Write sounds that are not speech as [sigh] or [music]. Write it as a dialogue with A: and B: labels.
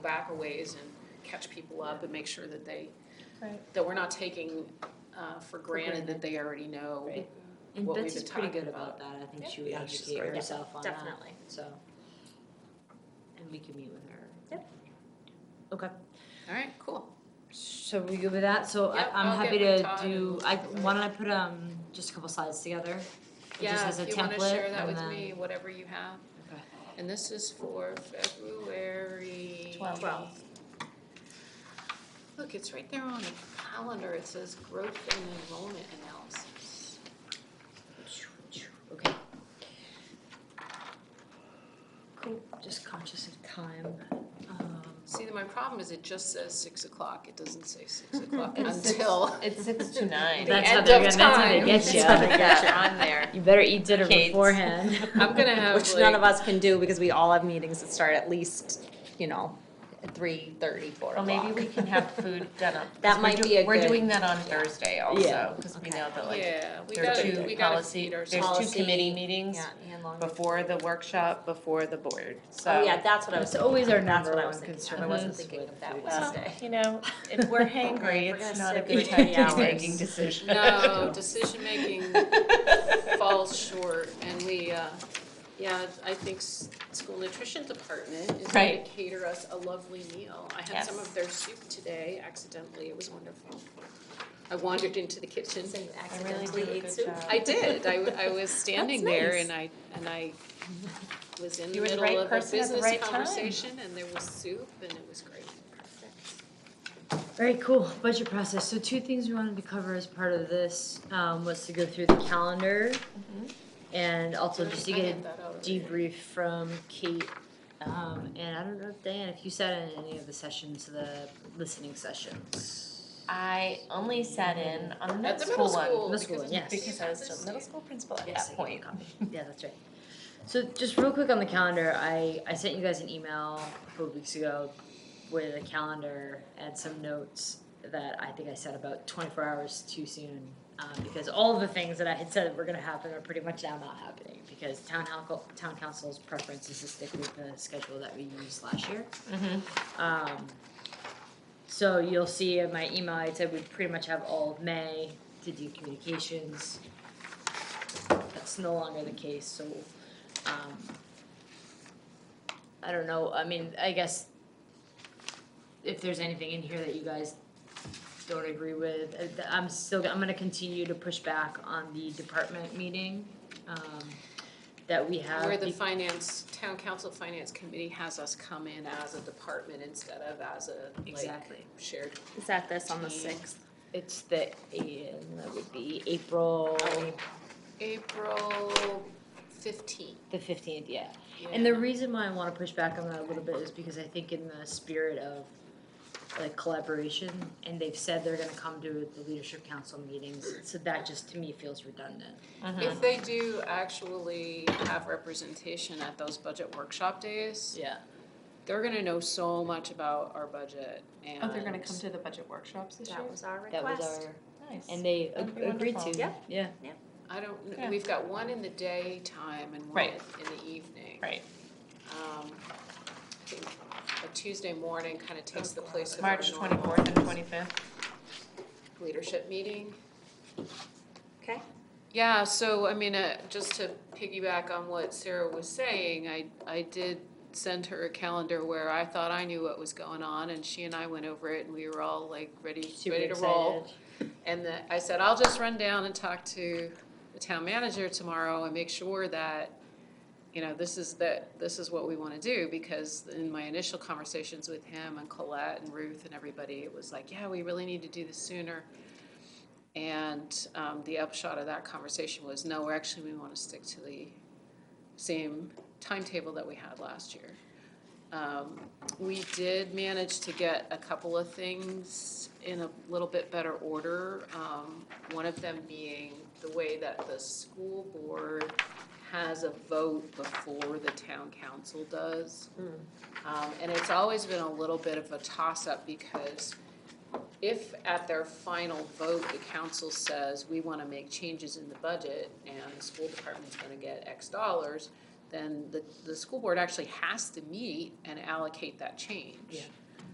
A: back a ways and catch people up and make sure that they,
B: Right.
A: that we're not taking uh, for granted that
B: granted.
A: they already know.
B: Right.
C: And
A: what we've
C: Betsy's
A: been
C: pretty
A: talking
C: good about that, I think
B: Yep.
C: she would
D: Yeah, she's
C: educate
D: great.
C: herself on that,
B: Definitely.
C: so. And we can meet with her.
B: Yep.
C: Okay,
A: All right, cool.
C: so we good with that, so I,
A: Yep,
C: I'm
A: I'll
C: happy
A: get with
C: to
A: Todd
C: do,
A: and
C: I,
A: talk about it.
C: why don't I put, um, just a couple slides together? It just
A: Yeah,
C: has a
A: if you wanna
C: template
A: share that
C: and
A: with
C: then-
A: me, whatever you have.
C: Okay.
A: And this is for February.
B: Twelve. Twelve.
A: Look, it's right there on the calendar. It says growth and enrollment analysis.
C: Okay. Cool, just conscious of time, um,
A: See, my problem is it just says six o'clock. It doesn't say six o'clock
B: It's six.
A: until.
B: It's six [laughs] to nine.
C: That's how
A: end
C: they're
A: of
C: gonna- that's how they
A: time.
C: get
A: [laughs]
B: That's
C: you. [laughs]
B: how they get you [laughs] on there.
C: you better eat dinner
B: Kids.
C: beforehand. [laughs]
A: I'm gonna have
B: [laughs] Which none
A: like-
B: of us can do because we all have meetings that start at least, you know, at three thirty, four
E: Well,
B: o'clock.
E: maybe we
B: [laughs]
E: can have [laughs] food done up. 'cause
B: That
E: we're
B: might
E: do-
B: be a
E: We're
B: good-
E: doing that on Thursday also, because we
C: Okay.
E: know that like,
A: Yeah, we
E: there are
A: gotta,
E: two
A: we gotta
E: policy,
A: feed
E: there's
A: ourselves.
E: two
B: Policy,
E: committee meetings
B: Yeah, and longer.
E: before the workshop, before the board, so.
B: Oh, yeah, that's what I was.
C: It's always our
B: That's
C: number
B: what I
C: one
B: was thinking.
C: concern.
B: I wasn't
C: is
B: thinking
C: with
B: of that
C: food.
E: Well,
B: Wednesday.
E: you know, if we're hangry,
B: We're gonna
E: it's not a
B: sit
E: good
B: here
E: time to
B: hours. [laughs]
E: be making decisions. [laughs]
A: No, decision making falls short and we, uh, yeah, I think s- school nutrition department is gonna
E: Right.
A: cater us a lovely meal. I had some
E: Yes.
A: of their soup today accidentally, it was wonderful. I wandered into the kitchen.
B: So you
E: I really
B: accidentally
E: do a
B: ate
E: good
B: soup?
E: job.
A: I did, I,
E: [laughs]
A: w- I was standing
B: That's
A: there
B: nice.
A: and I, and I was in the
E: You were the
A: middle
E: right
A: of a
E: person at the
A: business
E: right time.
A: conversation and there was soup and it was great.
C: Very cool, budget process. So two things we wanted to cover as part of this, um, was to go through the calendar. And also just to
A: I
C: get
A: had that
C: a
A: out already.
C: debrief from Kate, um, and I don't know if Diane, if you sat in any of the sessions, the listening sessions.
E: I only sat in on the
A: At
E: middle
A: the middle
E: school
A: school.
E: one,
C: Middle school
A: because
C: one,
A: it's-
C: yes.
E: because I was still middle
A: Yes.
E: school principal at
C: Yes,
E: that
C: I get
E: point.
C: a copy. [laughs] Yeah, that's right. So just real quick on the calendar, I, I sent you guys an email a couple of weeks ago with a calendar and some notes that I think I said about twenty-four hours too soon. Um, because all of the things that I had said were gonna happen are pretty much now not happening, because town council, town council's preference is to stick with the schedule that we used last year. Um, so you'll see in my email, I said we pretty much have all of May to do communications. That's no longer the case, so, um, I don't know, I mean, I guess if there's anything in here that you guys don't agree with, uh, th- I'm still, I'm gonna continue to push back on the department meeting, um, that we
E: Uh,
C: have.
A: Where the
C: be-
A: finance, town council finance committee has us come in as a department instead of as a like
C: Exactly.
A: shared.
B: Is that this on the
A: Mm.
B: sixth?
C: It's the, and that would be April
A: April fifteenth.
C: the fifteenth, yeah. And the reason why I want to push back on that a little bit is because I think in the spirit of like collaboration, and they've said they're gonna come to the leadership council meetings, so that just to me feels redundant.
E: Uh-huh.
A: If they do actually have representation at those budget workshop days,
C: Yeah.
A: they're gonna know so much about our budget
E: Oh,
A: and.
E: to the budget workshops this
B: That was our
C: That was
B: request.
C: our,
E: Nice.
C: and they
E: That'd be
C: agreed
E: wonderful.
C: to, yeah.
B: Yeah.
A: I don't,
E: Yeah.
A: kn- we've got one in the daytime and one in
E: Right.
A: the evening.
E: Right,
A: Um, I think a Tuesday morning kind of takes the place of our
E: March
A: normal
E: twenty-fourth and twenty-fifth.
A: leadership meeting.
B: Okay.
A: Yeah, so I mean, uh, just to piggyback on what Sarah was saying, I, I did send her a calendar where I thought I knew what was going on and she and I went over it and we were all like ready,
C: Super
A: ready to
C: excited.
A: roll. And the, I said, I'll just run down and talk to the town manager tomorrow and make sure that, you know, this is that, this is what we wanna do, because in my initial conversations with him and Colette and Ruth and everybody, it was like, yeah, we really need to do this sooner. And, um, the upshot of that conversation was, no, we're actually, we wanna stick to the same timetable that we had last year. Um, we did manage to get a couple of things in a little bit better order. Um, one of them being the way that the school board has a vote before the town council does. Um, and it's always been a little bit of a toss-up because if at their final vote, the council says, we wanna make changes in the budget and the school department's gonna get X dollars, then the, the school board actually has to meet and allocate that change.